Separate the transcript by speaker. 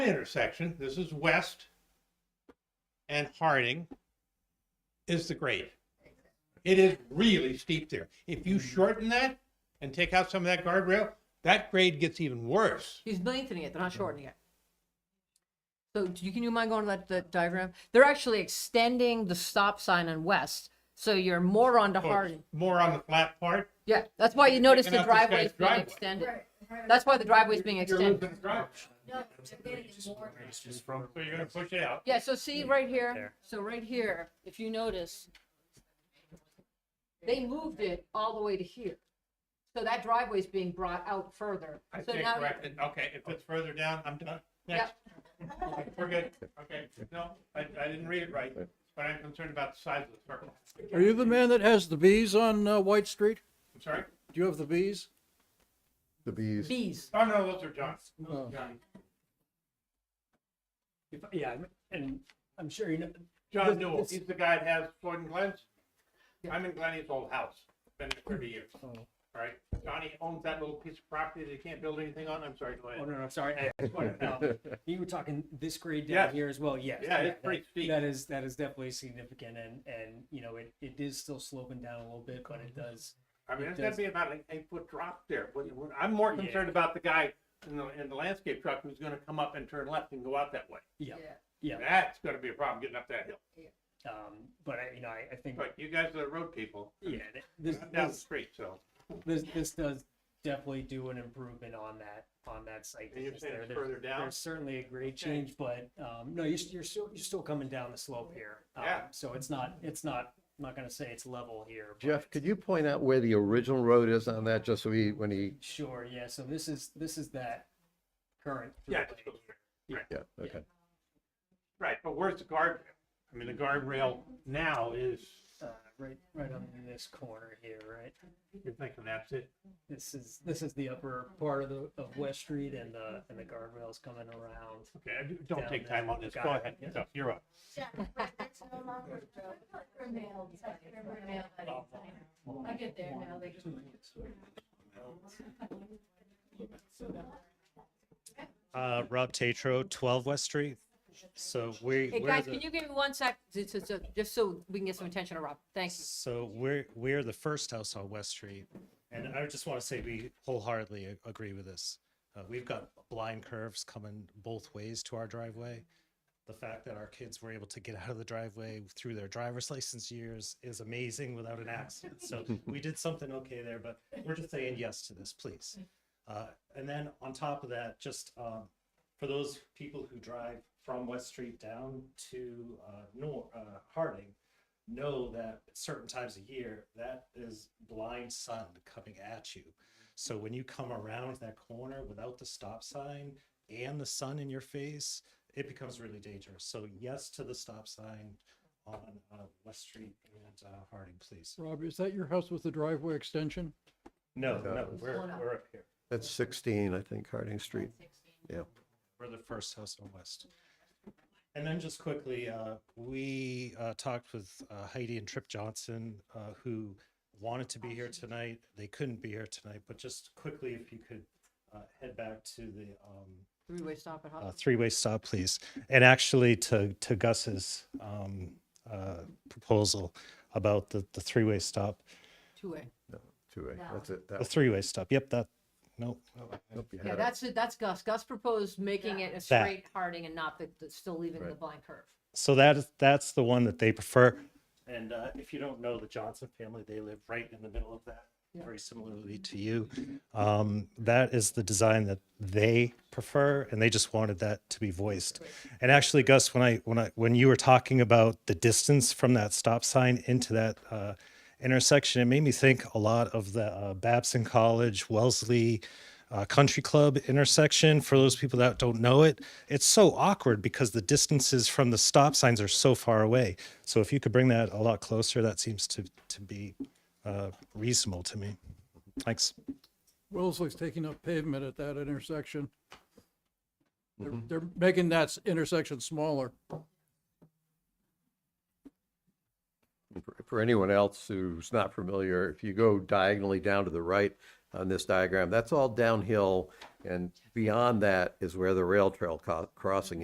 Speaker 1: intersection, this is West and Harding, is the grade. It is really steep there. If
Speaker 2: Mm-hmm.
Speaker 1: you shorten that and take out some of that guardrail, that grade gets even worse.
Speaker 2: He's lengthening it, they're not shortening it. So do you, can you mind going to that, that diagram? They're actually extending the stop sign on West, so you're more onto
Speaker 1: So it's
Speaker 2: Harding.
Speaker 1: More on the flat part.
Speaker 2: Yeah, that's why you notice
Speaker 1: Picking
Speaker 2: the
Speaker 1: up this
Speaker 2: driveway is
Speaker 1: guy's
Speaker 2: being
Speaker 1: driveway.
Speaker 2: extended. That's why the driveway is being
Speaker 1: You're losing
Speaker 2: extended.
Speaker 1: the drive.
Speaker 3: Just from.
Speaker 1: So you're gonna push it out.
Speaker 2: Yeah, so see right here,
Speaker 3: There.
Speaker 2: so right here, if you notice, they moved it all the way to here. So that driveway is being brought out further.
Speaker 1: I
Speaker 2: So
Speaker 1: stand
Speaker 2: now,
Speaker 1: corrected. Okay, if it's further down, I'm done. Next. We're good. Okay, no, I, I didn't read it right, but I'm concerned about the size of the circle.
Speaker 4: Are you the man that has the bees on uh, White Street?
Speaker 1: I'm sorry.
Speaker 4: Do you have the bees?
Speaker 5: The bees.
Speaker 2: bees.
Speaker 1: Oh, no, those are John's. Those
Speaker 4: Oh.
Speaker 1: are John's.
Speaker 3: If- Yeah, I'm- and I'm sure you know,
Speaker 1: John
Speaker 3: This-
Speaker 1: Newell,
Speaker 3: this-
Speaker 1: he's the guy that has Floyd and Glenn's. I'm in Glenny's old house, been there thirty years,
Speaker 3: Oh.
Speaker 1: all right? Johnny owns that little piece of property that he can't build anything on, I'm sorry, go
Speaker 3: oh,
Speaker 1: ahead.
Speaker 3: no, no, sorry. I- I just wanted to know. You were talking this grade down
Speaker 1: Yes.
Speaker 3: here as well, yes.
Speaker 1: Yeah, it's
Speaker 3: that-
Speaker 1: pretty steep.
Speaker 3: That is, that is definitely significant and, and, you know, it, it is still sloping down a little bit, but it does.
Speaker 1: I mean,
Speaker 3: Oh, It
Speaker 1: it's gonna
Speaker 3: does.
Speaker 1: be about an eight foot drop there, but when- I'm more
Speaker 3: Yeah.
Speaker 1: concerned about the guy in the, in the landscape truck who's gonna come up and turn left and go out that way.
Speaker 3: Yeah,
Speaker 1: That's gonna be a problem getting up that hill,
Speaker 3: um, but I, you know, I, I think,
Speaker 1: but you guys are the road people,
Speaker 3: yeah, th- this,
Speaker 1: not down the
Speaker 3: this,
Speaker 1: street, so.
Speaker 3: this, this does definitely do an improvement on that, on that site.
Speaker 1: And you're
Speaker 3: distance
Speaker 1: saying
Speaker 3: there.
Speaker 1: it's
Speaker 3: There's-
Speaker 1: further down?
Speaker 3: There's certainly a grade
Speaker 1: Okay.
Speaker 3: change, but, um, no, you're, s- you're still, you're still coming down the slope here. Um,
Speaker 1: Mm-hmm. Yeah.
Speaker 3: So it's not, it's not, I'm not gonna say it's level here. but
Speaker 5: Jeff,
Speaker 3: it's-
Speaker 5: could you point out where the original road is on that, just so he, when he,
Speaker 3: Sure, yeah, so this is, this is that current.
Speaker 1: Yeah,
Speaker 3: throughway.
Speaker 1: it's still straight.
Speaker 5: yeah, okay.
Speaker 1: right, but where's the guardrail? I mean, the guardrail now is,
Speaker 3: uh, right, right on this corner here, right?
Speaker 1: you're thinking that's it,
Speaker 3: This is, this is the upper part of the, of West Street and the, and the guardrail's coming around.
Speaker 1: Okay, I do- don't
Speaker 3: Down
Speaker 1: take
Speaker 3: there.
Speaker 1: time on this.
Speaker 3: Got
Speaker 1: Go
Speaker 3: it.
Speaker 1: ahead.
Speaker 3: Yeah.
Speaker 1: No, You're up.
Speaker 6: I get there now, they just.
Speaker 7: Uh, Rob Tatro, 12 West Street. So we,
Speaker 2: Hey,
Speaker 7: we're
Speaker 2: guys,
Speaker 7: the-
Speaker 2: can you give me one sec, so- so- so- just so we can get some attention on Rob? Thanks.
Speaker 7: so we're we're the first house on West Street, and I just want to say we wholeheartedly a- agree with this. Uh, we've got blind curves coming both ways to our driveway. The fact that our kids were able to get out of the driveway through their driver's license years is amazing without an accident. So we did something okay there, but we're just saying yes to this, please. Uh, and then on top of that, just um, for those people who drive from West Street down to uh, Nor- uh, Harding, know that at certain times of year that is blind sun coming at you. So when you come around that corner without the stop sign and the sun in your face, it becomes really dangerous. So yes to the stop sign on uh, West Street and uh, Harding, please.
Speaker 4: Rob, is that your house with the driveway extension?
Speaker 7: No,
Speaker 5: No.
Speaker 7: no, we're, we're up here.
Speaker 5: That's 16, I think, Harding Street. Yeah.
Speaker 7: We're the first house on West. And then just quickly, uh, we uh, talked with uh, Heidi and Trip Johnson, uh, who wanted to be here tonight. They couldn't be here tonight, but just quickly, if you could uh, head back to the um,
Speaker 2: Three-way stop at
Speaker 7: uh,
Speaker 2: Hudson.
Speaker 7: three-way stop, please. And actually, to to Gus's um, uh, proposal about the the three-way stop,
Speaker 2: two-way.
Speaker 5: Two A, that's it.
Speaker 7: the
Speaker 5: That
Speaker 7: three-way stop. Yep, that. Nope.
Speaker 5: nope, you
Speaker 2: Yeah,
Speaker 5: had it.
Speaker 2: that's, it. that's Gus. Gus proposed making it a straight Harding and not the, the- still leaving the
Speaker 5: Right.
Speaker 2: blind curve.
Speaker 7: So that is that's the one that they prefer. And uh, if you don't know the Johnson family, they live right in the middle of that, very similarly to you. Um, that is the design that they prefer, and they just wanted that to be voiced. And actually, Gus, when I when I when you were talking about the distance from that stop sign into that uh, intersection, it made me think a lot of the uh, Babson College, Wellesley uh, country club intersection. For those people that don't know it, it's so awkward because the distances from the stop signs are so far away. So if you could bring that a lot closer, that seems to to be uh, reasonable to me. Thanks.
Speaker 4: Wellesley's taking up pavement at that intersection. They're, they're making that s- intersection smaller.
Speaker 5: For- For anyone else who's not familiar, if you go diagonally down to the right, on this diagram, that's all downhill. And beyond that is where the rail trail co- crossing